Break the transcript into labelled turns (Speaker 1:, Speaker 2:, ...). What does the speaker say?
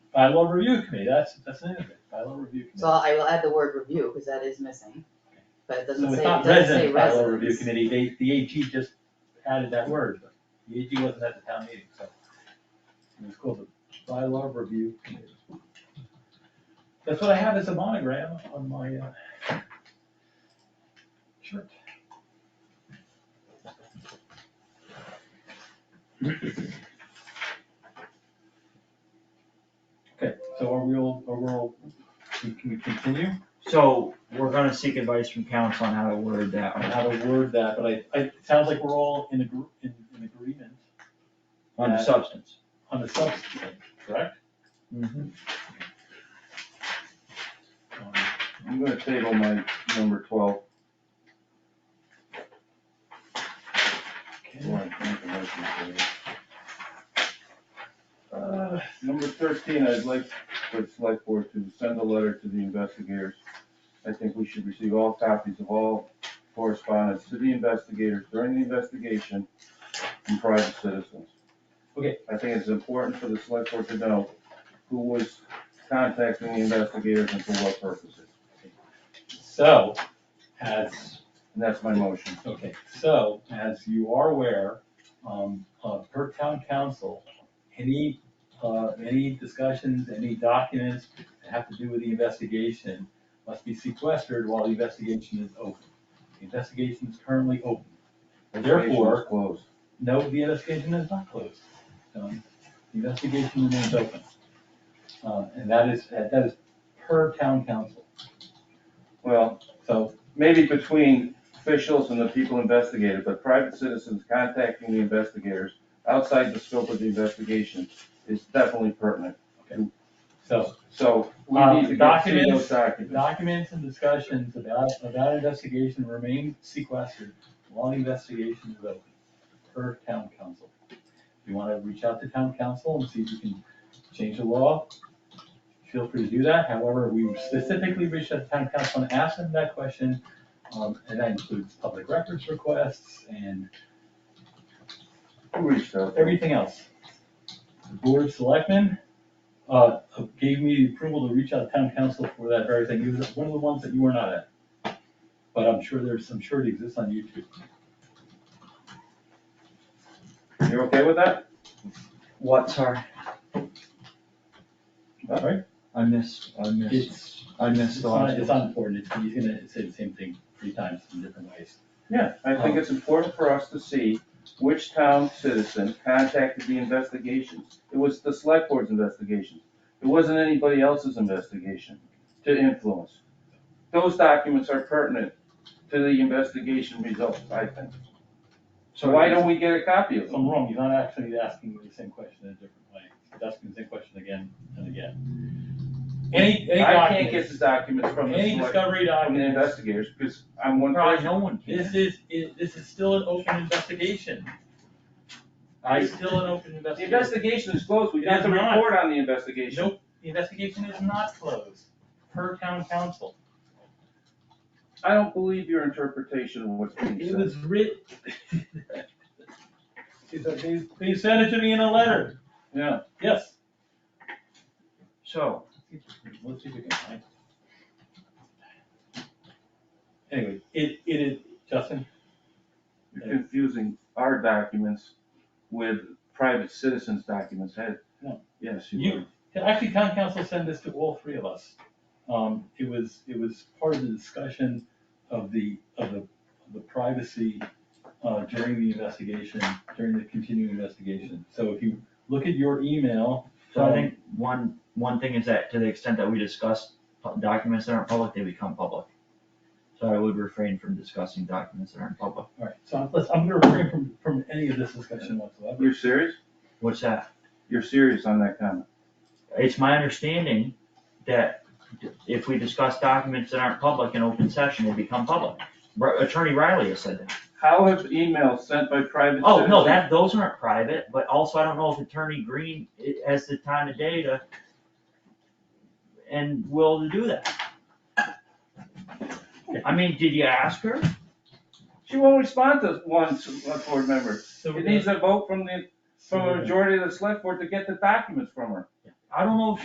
Speaker 1: bylaw review committee, that's, that's the name of it, bylaw review
Speaker 2: So
Speaker 1: committee.
Speaker 2: I will add the word review, because that is missing, but it doesn't
Speaker 1: So
Speaker 2: say,
Speaker 1: it's
Speaker 2: it
Speaker 1: not
Speaker 2: doesn't say
Speaker 1: resident
Speaker 2: residents.
Speaker 1: bylaw review committee, they, the AG just added that word, but the AG wasn't at the town meeting, so. It was called the bylaw review committee. That's what I have as a monogram on my, uh, shirt. Okay, so are we all, are we all, can we continue?
Speaker 3: So we're gonna seek advice from council on how to word that.
Speaker 1: on how to word that, but I, I, it sounds like we're all in agr- in, in agreement
Speaker 3: on the
Speaker 1: Yeah.
Speaker 3: substance.
Speaker 1: on the substance, correct? Um,
Speaker 4: I'm gonna table my number twelve,
Speaker 1: okay.
Speaker 4: before I make a motion for it.
Speaker 1: Uh,
Speaker 4: Number thirteen, I'd like for the select board to send a letter to the investigators. I think we should receive all copies of all correspondence to the investigators during the investigation from private citizens.
Speaker 1: Okay.
Speaker 4: I think it's important for the select board to know who was contacting the investigators and for what purposes.
Speaker 1: So, as,
Speaker 4: And that's my motion.
Speaker 1: okay, so as you are aware, um, uh, per town council, any, uh, any discussions, any documents that have to do with the investigation must be sequestered while the investigation is open. The Investigation is currently open. Therefore-
Speaker 4: Case is Closed.
Speaker 1: No, the investigation is not closed. Um, The investigation remains open. Uh, And that is, that is per town council.
Speaker 4: Well,
Speaker 1: So,
Speaker 4: maybe between officials and the people investigated, but private citizens contacting the investigators outside the scope of the investigation is definitely pertinent.
Speaker 1: so
Speaker 4: So we
Speaker 1: Uh,
Speaker 4: need to get to
Speaker 1: documents-
Speaker 4: those documents.
Speaker 1: documents and discussions about, about investigation remain sequestered while the investigation is open, per town council. If you want to reach out to town council and see if you can change the law, feel free to do that. However, we specifically reached out to town council and asked them that question. Um, And that includes public records requests and
Speaker 4: Who reached out?
Speaker 1: everything else. The board of selectmen, uh, gave me the approval to reach out to town council for that very thing, it was one of the ones that you were not at. But I'm sure there's, I'm sure it exists on YouTube.
Speaker 4: You're okay with that?
Speaker 3: What, sorry,
Speaker 1: Alright,
Speaker 3: I missed, I missed,
Speaker 1: it's,
Speaker 3: I missed
Speaker 1: it's
Speaker 3: the
Speaker 1: not,
Speaker 3: last
Speaker 1: it's
Speaker 3: one.
Speaker 1: not important, it's, he's gonna say the same thing three times in different ways.
Speaker 4: Yeah, I
Speaker 1: Oh.
Speaker 4: think it's important for us to see which town citizen contacted the investigations. It was the select board's investigations. It wasn't anybody else's investigation to influence. Those documents are pertinent to the investigation results, I think. So why don't we get a copy of
Speaker 1: If
Speaker 4: them?
Speaker 1: I'm wrong, he's not actually asking the same question in a different way, he's asking the same question again and again. Any, any
Speaker 4: I can't
Speaker 1: documents,
Speaker 4: get the documents from the
Speaker 1: any
Speaker 4: select,
Speaker 1: discovery
Speaker 4: from the
Speaker 1: documents.
Speaker 4: investigators, because I'm one
Speaker 3: Probably
Speaker 4: person.
Speaker 3: no one can.
Speaker 1: This is, it- this is still an open investigation. It's still an open
Speaker 4: The
Speaker 1: investigation.
Speaker 4: investigation is closed, we
Speaker 1: It
Speaker 4: have
Speaker 1: is
Speaker 4: to
Speaker 1: not.
Speaker 4: report on the investigation.
Speaker 1: Nope, the investigation is not closed, per town council.
Speaker 4: I don't believe your interpretation of what's being
Speaker 1: It
Speaker 4: said.
Speaker 1: was writ. They said- They sent it to me in a letter,
Speaker 4: Yeah.
Speaker 1: yes.
Speaker 3: So,
Speaker 1: Let's see if we can find it. Anyway, it, it is, Justin,
Speaker 4: You're confusing our documents with private citizens' documents, Hey,
Speaker 1: No.
Speaker 4: Yes,
Speaker 1: You-
Speaker 4: you are.
Speaker 1: Actually, town council sent this to all three of us. Um, it was, it was part of the discussion of the, of the, of the privacy, uh, during the investigation, during the continuing investigation. So if you look at your email,
Speaker 3: so I think one, one thing is that to the extent that we discuss pu- documents that aren't public, they become public. So I would refrain from discussing documents that aren't public.
Speaker 1: alright, so I'm, let's- I'm gonna refrain from, from any of this discussion whatsoever.
Speaker 4: You're serious?
Speaker 3: What's that?
Speaker 4: You're serious on that comment?
Speaker 3: It's my understanding that if we discuss documents that aren't public in open session, they become public. Ri- Attorney Riley has said that.
Speaker 4: How have emails sent by private
Speaker 3: Oh,
Speaker 4: citizens?
Speaker 3: no, that, those aren't private, but also I don't know if Attorney Green i- has the time of day to and will to do that. I mean, did you ask her?
Speaker 4: She won't respond to one select board member.
Speaker 1: So we're
Speaker 4: It
Speaker 1: gonna-
Speaker 4: needs a vote from the,
Speaker 1: so
Speaker 4: from
Speaker 1: we're
Speaker 4: a
Speaker 1: gonna-
Speaker 4: majority of the select board to get the documents from her.
Speaker 3: I don't know if